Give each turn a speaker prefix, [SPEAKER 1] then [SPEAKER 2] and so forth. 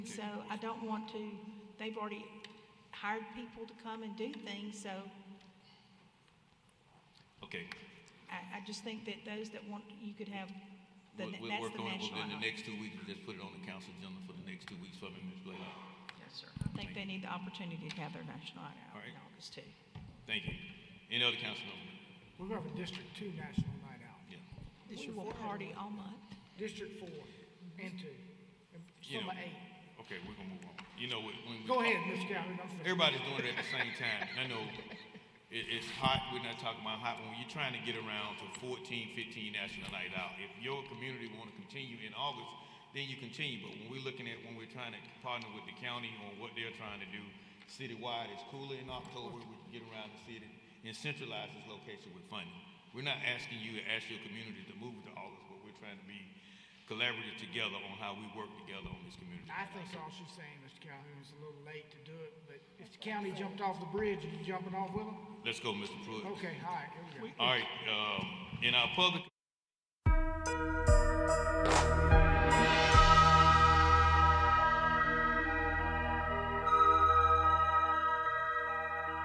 [SPEAKER 1] So I don't want to, they've already hired people to come and do things, so
[SPEAKER 2] Okay,
[SPEAKER 1] I, I just think that those that want, you could have, the-
[SPEAKER 2] we'll,
[SPEAKER 1] that's the
[SPEAKER 2] we'll work
[SPEAKER 1] national.
[SPEAKER 2] on it, within the
[SPEAKER 1] honor.
[SPEAKER 2] next two weeks, just put it on the council agenda for the next two weeks for me, Ms. Blaylock.
[SPEAKER 3] Yes, sir.
[SPEAKER 1] I think they need the opportunity to have their national honor out
[SPEAKER 2] All
[SPEAKER 1] in
[SPEAKER 2] right.
[SPEAKER 1] August too.
[SPEAKER 2] Thank you. Any other council member?
[SPEAKER 4] We're going for District Two National Night Out.
[SPEAKER 2] Yeah.
[SPEAKER 1] We will party all month.
[SPEAKER 4] District Four and Two, and
[SPEAKER 2] You know,
[SPEAKER 4] some of eight.
[SPEAKER 2] Okay, we're gonna move on. You know, when- when. we-
[SPEAKER 4] Go ahead, Mr. Calhoun, I'm finished.
[SPEAKER 2] Everybody's doing it at the same time. and I know it, it's hot, we're not talking about hot, when you're trying to get around to 14, 15 National Night Out, if your community wanna continue in August, then you continue, but when we're looking at, when we're trying to partner with the county on what they're trying to do citywide, it's cooler in October, we can get around the city and centralize this location with funding. We're not asking you to ask your community to move to August, but we're trying to be collaborative together on how we work together on this community.
[SPEAKER 4] I think all she's saying, Mr. Calhoun, is a little late to do it, but if the county jumped off the bridge, are you jumping off with them?
[SPEAKER 2] Let's go, Mr. Pruitt.
[SPEAKER 4] Okay, all right, here we go.
[SPEAKER 2] All right, um, in our public